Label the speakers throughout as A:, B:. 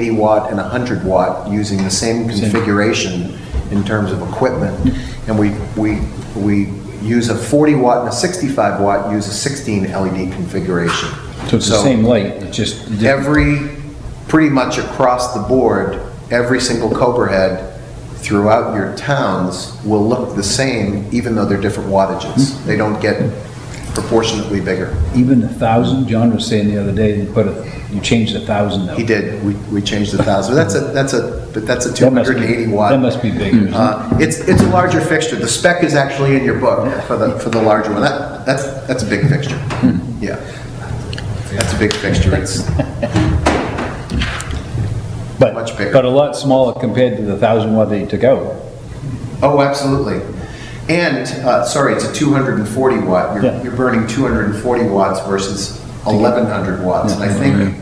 A: 80 watt and 100 watt using the same configuration in terms of equipment. And we, we, we use a 40 watt and a 65 watt, use a 16 LED configuration.
B: So it's the same light, it's just,
A: Every, pretty much across the board, every single Cobra head throughout your towns will look the same, even though they're different
B: Hmm.
A: wattages. They don't get proportionately bigger.
B: even a thousand, John was saying the other day, you put a, you changed a thousand though.
A: He did, we, we changed the thousand, that's a, that's a, but that's a
B: That must be-
A: 280 watt.
B: That must be bigger. isn't it?
A: Uh, It's, it's a larger fixture, the spec is actually in your book for the, for the larger one, that, that's, that's a big fixture,
B: Hmm.
A: yeah. That's a big fixture, it's,
B: But-
A: much bigger.
B: But a lot smaller compared to the thousand watt that you took out.
A: oh, absolutely. And, uh, sorry, it's a 240 watt,
B: Yeah.
A: you're, you're burning 240 watts versus 1100 watts, and I think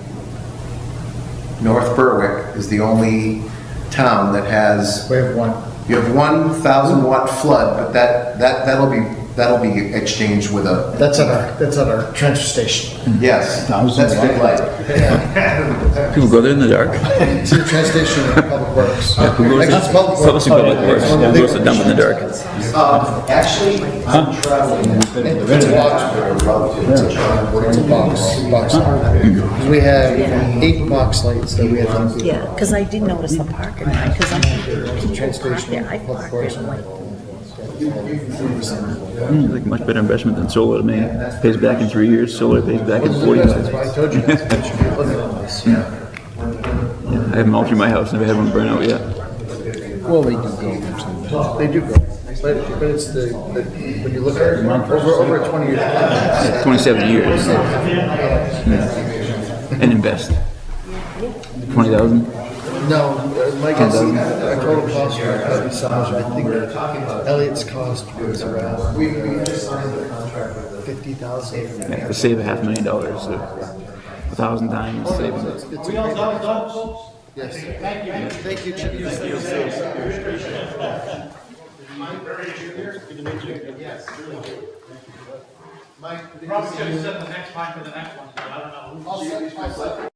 A: North Berwick is the only town that has
C: We have one.
A: You have one thousand watt flood, but that, that, that'll be, that'll be exchanged with a.
C: That's at our, that's at our transfer station.
A: Yes,
B: 1,000
A: that's a big
B: Hmm. watt.
A: light.
D: People go there in the dark.
C: It's a transfer station at Public Works.
D: Who goes
C: Actually, it's
D: to
C: Public Works.
D: Publishing Public Works? Who goes to dump in the dark?
A: Um, actually, I'm traveling.
C: It's a box. It's a box, box. Because we have eight box lights that we have. to-
E: Yeah, because I did notice the parking lot, because I'm,
C: Transfer
E: people park
C: station
E: there, I
C: at Public
E: park
C: Works.
E: there, like,
D: Like much better investment than solar to me. Pays back in three years, solar pays back in forty
C: That's why
D: years.
C: I told you guys. that you should look at this.
D: I haven't altered my house, never had one burn out yet.
B: Well, they do go.
C: They do go, but, but it's the, the- when you look at it, over, over a twenty-year plan,
D: Yeah, Twenty-seven years. Yeah. And invest. Twenty thousand?
C: no, uh, my guess, is our total cost for our property size, I think Elliot's cost was around. Fifty thousand.
D: Yeah, to save a half million dollars, so a thousand times savings.
C: We all done, Yes. Thank you. Thank you, Chief.
F: Probably gonna set the next time for the next one, but I don't know. who-